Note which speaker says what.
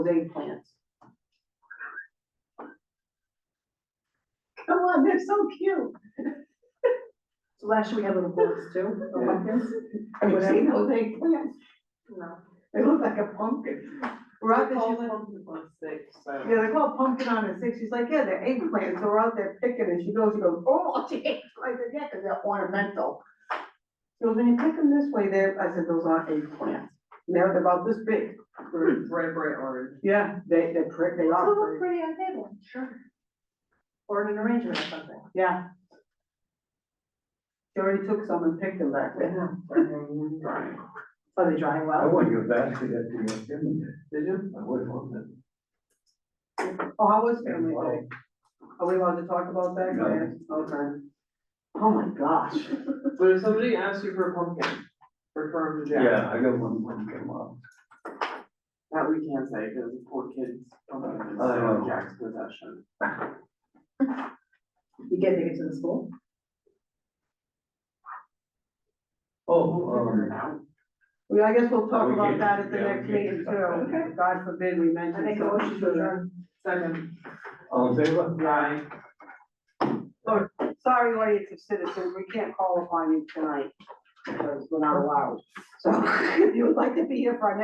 Speaker 1: eggplants.
Speaker 2: Come on, they're so cute.
Speaker 1: So last year we had little bullets too, Oh, the pumpkins.
Speaker 2: Have you
Speaker 1: Whatever.
Speaker 2: seen those eggplants?
Speaker 1: No.
Speaker 2: They look like a pumpkin. We're out
Speaker 1: Rock
Speaker 2: there,
Speaker 1: is
Speaker 2: she's- yeah, they call it pumpkin on a stick. She's like, yeah, they're eggplants. So we're out there picking and she goes, she goes, oh, she I said, yeah, because they're ornamental. She goes, when you pick them this way, they're, I said, those are eggplants. And They're about this big.
Speaker 3: Red, bright orange.
Speaker 2: Yeah, they, they're pretty, they are pretty.
Speaker 1: pretty on table. Sure. Or in an arrangement or something.
Speaker 2: Yeah. She already took some and picked them back there. Are they drying
Speaker 3: I
Speaker 2: well?
Speaker 3: want you back to that, to your family. Did you? I would want that.
Speaker 2: Oh, how was family day? Are we allowed to talk about that?
Speaker 3: No.
Speaker 2: Yes, Okay. Oh, my gosh.
Speaker 4: But if somebody asks you for a pumpkin, refer them to Jack.
Speaker 3: Yeah, I got one pumpkin left.
Speaker 4: That we can't say, because the poor kids don't have it,
Speaker 3: I
Speaker 4: so
Speaker 3: know.
Speaker 4: Jack's possession.
Speaker 1: You get tickets to the school?
Speaker 3: Oh,
Speaker 4: Figure it
Speaker 3: um,
Speaker 4: out.
Speaker 2: Well, I guess we'll
Speaker 3: Oh,
Speaker 2: talk
Speaker 3: we
Speaker 2: about
Speaker 3: can-
Speaker 2: that at the
Speaker 3: yeah, we
Speaker 2: next
Speaker 3: can
Speaker 2: meeting
Speaker 3: talk about that.
Speaker 2: too. God forbid we mention.
Speaker 1: I make a motion to adjourn.
Speaker 4: Second,
Speaker 3: all in favor?
Speaker 4: aye.
Speaker 2: something. Sorry, audience of citizens, we can't call upon you tonight because we're not allowed. So if you would like to be here for our next